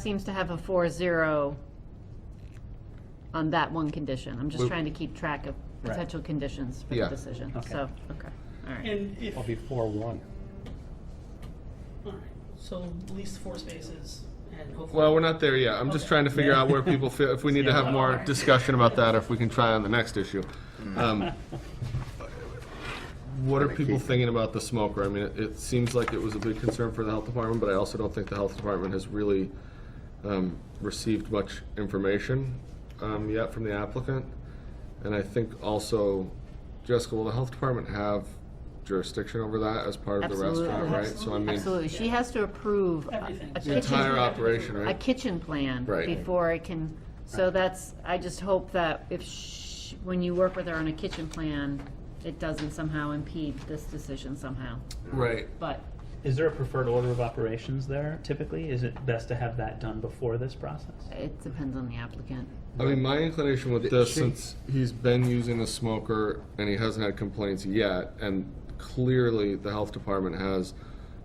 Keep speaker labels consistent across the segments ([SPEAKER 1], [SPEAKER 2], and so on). [SPEAKER 1] seems to have a four zero on that one condition. I'm just
[SPEAKER 2] We-
[SPEAKER 1] trying to keep track of
[SPEAKER 3] Right.
[SPEAKER 1] potential conditions for the
[SPEAKER 2] Yeah.
[SPEAKER 1] decision,
[SPEAKER 3] Okay.
[SPEAKER 1] so, okay, all right.
[SPEAKER 4] And if,
[SPEAKER 3] I'll be four one.
[SPEAKER 4] all right, so at least four spaces and hopefully.
[SPEAKER 2] Well, we're not there yet. I'm just trying to figure out where people feel, if we need to have more discussion about that, if we can try on the next issue. Um, What are people thinking about the smoker? I mean, it- it seems like it was a big concern for the health department, but I also don't think the health department has really um, received much information um, yet from the applicant. And I think also, Jessica, will the health department have jurisdiction over that as part of the restaurant,
[SPEAKER 1] Absolutely.
[SPEAKER 2] right? So I mean,
[SPEAKER 1] Absolutely, she has to approve a-
[SPEAKER 4] Everything.
[SPEAKER 1] a
[SPEAKER 2] the entire
[SPEAKER 1] kitchen,
[SPEAKER 2] operation,
[SPEAKER 1] a
[SPEAKER 2] right?
[SPEAKER 1] kitchen plan
[SPEAKER 2] Right.
[SPEAKER 1] before it can, so that's, I just hope that if, sh- when you work with her on a kitchen plan, it doesn't somehow impede this decision somehow,
[SPEAKER 2] Right.
[SPEAKER 1] but
[SPEAKER 3] Is there a preferred order of operations there typically? Is it best to have that done before this process?
[SPEAKER 1] it depends on the applicant.
[SPEAKER 2] I mean, my inclination with this,
[SPEAKER 5] she-
[SPEAKER 2] since he's been using a smoker and he hasn't had complaints yet, and clearly the health department has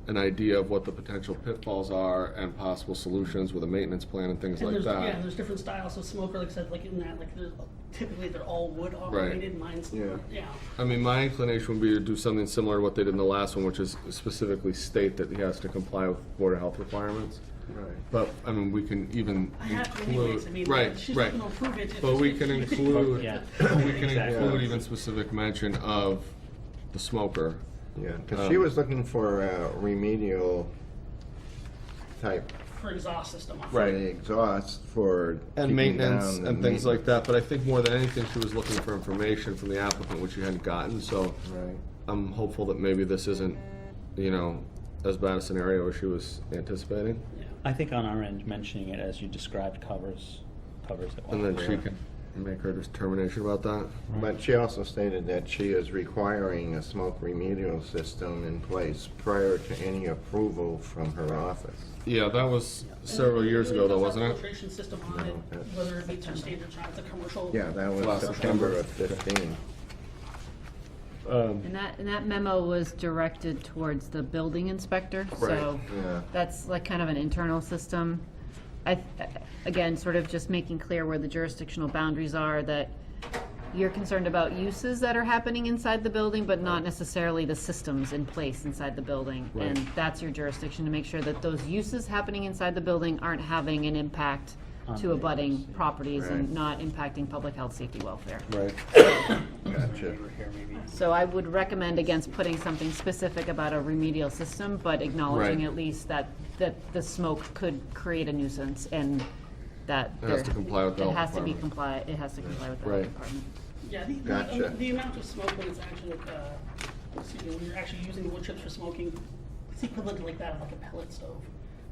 [SPEAKER 2] an idea of what the potential pitfalls are and possible solutions with a maintenance plan and things
[SPEAKER 4] And
[SPEAKER 2] like
[SPEAKER 4] there's, yeah, and
[SPEAKER 2] that.
[SPEAKER 4] there's different styles of smoker, like I said, like in that, like there's, typically they're all wood operated, mine's,
[SPEAKER 5] Yeah.
[SPEAKER 4] yeah.
[SPEAKER 2] I mean, my inclination would be to do something similar to what they did in the last one, which is specifically state that he has to comply with Board of Health requirements.
[SPEAKER 5] Right.
[SPEAKER 2] But, I mean, we can even
[SPEAKER 4] I have to anyways, I mean,
[SPEAKER 2] include,
[SPEAKER 4] like,
[SPEAKER 2] right,
[SPEAKER 4] she's not
[SPEAKER 2] right.
[SPEAKER 4] gonna approve it. if
[SPEAKER 2] But
[SPEAKER 4] it's-
[SPEAKER 2] we can include,
[SPEAKER 3] Yeah.
[SPEAKER 2] we can
[SPEAKER 3] Exactly.
[SPEAKER 2] include even specific mention of the smoker.
[SPEAKER 5] Yeah, because she
[SPEAKER 2] Um,
[SPEAKER 5] was looking for a remedial type
[SPEAKER 4] For exhaust system. on
[SPEAKER 5] for the exhaust for
[SPEAKER 2] And
[SPEAKER 5] keeping
[SPEAKER 2] maintenance
[SPEAKER 5] down
[SPEAKER 2] and
[SPEAKER 5] the
[SPEAKER 2] things like that, but I think more than anything, she was looking for information from the applicant, which she hadn't gotten, so
[SPEAKER 5] maintenance.
[SPEAKER 2] I'm hopeful that maybe this isn't, you know, as bad a scenario as she was anticipating,
[SPEAKER 4] Yeah.
[SPEAKER 3] I think on our end, mentioning it as you described covers, covers it well.
[SPEAKER 2] and then she can make her determination about that.
[SPEAKER 5] Right. But she also stated that she is requiring a smoke remedial system in place prior to any approval from her office.
[SPEAKER 2] Yeah, that was several
[SPEAKER 4] And it
[SPEAKER 2] years
[SPEAKER 4] really
[SPEAKER 2] ago
[SPEAKER 4] does
[SPEAKER 2] though, wasn't
[SPEAKER 4] have
[SPEAKER 2] it?
[SPEAKER 4] Filtration system on it,
[SPEAKER 5] No, that's-
[SPEAKER 4] whether it meets our standards or not, it's a commercial.
[SPEAKER 5] Yeah, that was
[SPEAKER 2] Last
[SPEAKER 5] September of 15. Um,
[SPEAKER 1] And that, and that memo was directed towards the building inspector, so
[SPEAKER 5] yeah.
[SPEAKER 1] that's like kind of an internal system. I, again, sort of just making clear where the jurisdictional boundaries are, that you're concerned about uses that are happening inside the building, but not necessarily the systems in place inside the building. And that's your jurisdiction to make sure that those uses happening inside the building aren't having an impact
[SPEAKER 3] On
[SPEAKER 1] to
[SPEAKER 3] the
[SPEAKER 1] abutting
[SPEAKER 3] neighbors, yeah.
[SPEAKER 1] properties and
[SPEAKER 5] Right.
[SPEAKER 1] not impacting public health, safety, welfare.
[SPEAKER 2] Right.
[SPEAKER 5] Gotcha.
[SPEAKER 1] So I would recommend against putting something specific about a remedial system, but acknowledging
[SPEAKER 2] Right.
[SPEAKER 1] at least that, that the smoke could create a nuisance and that.
[SPEAKER 2] It
[SPEAKER 1] there-
[SPEAKER 2] has to comply with the
[SPEAKER 1] It
[SPEAKER 2] health
[SPEAKER 1] has to be
[SPEAKER 2] department.
[SPEAKER 1] comply, it has to comply with the health
[SPEAKER 2] Right.
[SPEAKER 1] department.
[SPEAKER 4] Yeah, the,
[SPEAKER 5] Gotcha.
[SPEAKER 4] the, the amount of smoke when it's actually, uh, excuse me, when you're actually using the wood chips for smoking, it's equivalent to like that of like a pellet stove.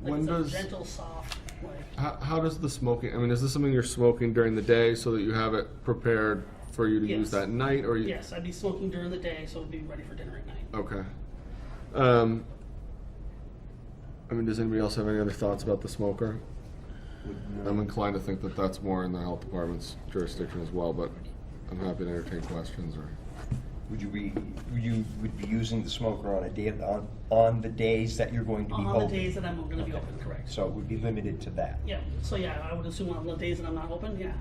[SPEAKER 4] Like
[SPEAKER 2] When
[SPEAKER 4] it's
[SPEAKER 2] does-
[SPEAKER 4] a gentle, soft, like
[SPEAKER 2] How, how does the smoking, I mean, is this something you're smoking during the day so that you have it prepared for you to use
[SPEAKER 4] Yes.
[SPEAKER 2] that night, or you?
[SPEAKER 4] yes, I'd be smoking during the day, so it'd be ready for dinner at night.
[SPEAKER 2] Okay. Um, I mean, does anybody else have any other thoughts about the smoker? I'm inclined to think that that's more in the health department's jurisdiction as well, but I'm happy to entertain questions or.
[SPEAKER 6] Would you be, you would be using the smoker on a day, on, on the days that you're going to be
[SPEAKER 4] On the
[SPEAKER 6] open?
[SPEAKER 4] days that I'm going to be open, correct?
[SPEAKER 6] So it would be limited to that?
[SPEAKER 4] Yeah, so yeah, I would assume on the days that I'm not open, yeah.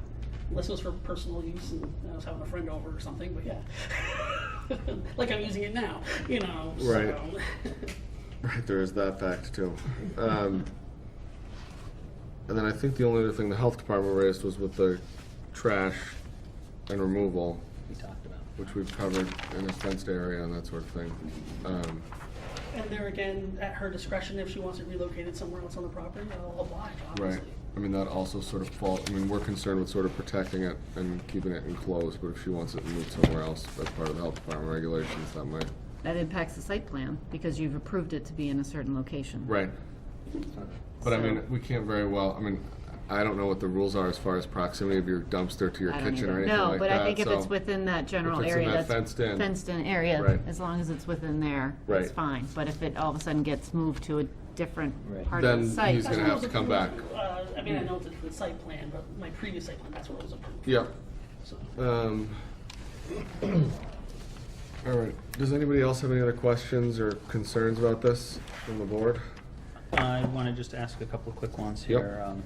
[SPEAKER 4] Unless it was for personal use and I was having a friend over or something, but yeah. like I'm using it now, you know.
[SPEAKER 2] Right.
[SPEAKER 4] So.
[SPEAKER 2] Right, there is that fact too. Um, and then I think the only other thing the health department raised was with the trash and removal,
[SPEAKER 3] We talked about.
[SPEAKER 2] which we've covered in a fenced area and that sort of thing. Um,
[SPEAKER 4] And there again, at her discretion, if she wants it relocated somewhere else on the property, I'll oblige,
[SPEAKER 2] Right.
[SPEAKER 4] obviously.
[SPEAKER 2] I mean, that also sort of fall, I mean, we're concerned with sort of protecting it and keeping it enclosed, but if she wants it moved somewhere else, that's part of the health department regulations, that might.
[SPEAKER 1] That impacts the site plan because you've approved it to be in a certain location.
[SPEAKER 2] Right. But I mean, we can't very well, I mean, I don't know what the rules are as far as proximity of your dumpster to your
[SPEAKER 1] I don't
[SPEAKER 2] kitchen or
[SPEAKER 1] either.
[SPEAKER 2] anything
[SPEAKER 1] No,
[SPEAKER 2] like that,
[SPEAKER 1] but I think if it's
[SPEAKER 2] so-
[SPEAKER 1] within that general
[SPEAKER 2] it's in
[SPEAKER 1] area,
[SPEAKER 2] that
[SPEAKER 1] that's.
[SPEAKER 2] fenced-in-
[SPEAKER 1] fenced-in area,
[SPEAKER 2] Right.
[SPEAKER 1] as long as it's within there,
[SPEAKER 2] Right.
[SPEAKER 1] it's fine. But if it all of a sudden gets moved to a different
[SPEAKER 6] Right.
[SPEAKER 1] part of the
[SPEAKER 2] Then
[SPEAKER 1] site.
[SPEAKER 2] he's gonna
[SPEAKER 4] That's
[SPEAKER 2] have
[SPEAKER 4] what
[SPEAKER 2] to come
[SPEAKER 4] was
[SPEAKER 2] back. Hmm.
[SPEAKER 4] approved. Uh, I mean, I know it's a different site plan, but my previous site plan, that's what was approved.
[SPEAKER 2] Yep.
[SPEAKER 4] So,
[SPEAKER 2] Um, all right. Does anybody else have any other questions or concerns about this from the board?
[SPEAKER 3] I want to just ask a couple of quick ones
[SPEAKER 2] Yep.
[SPEAKER 3] here. Um,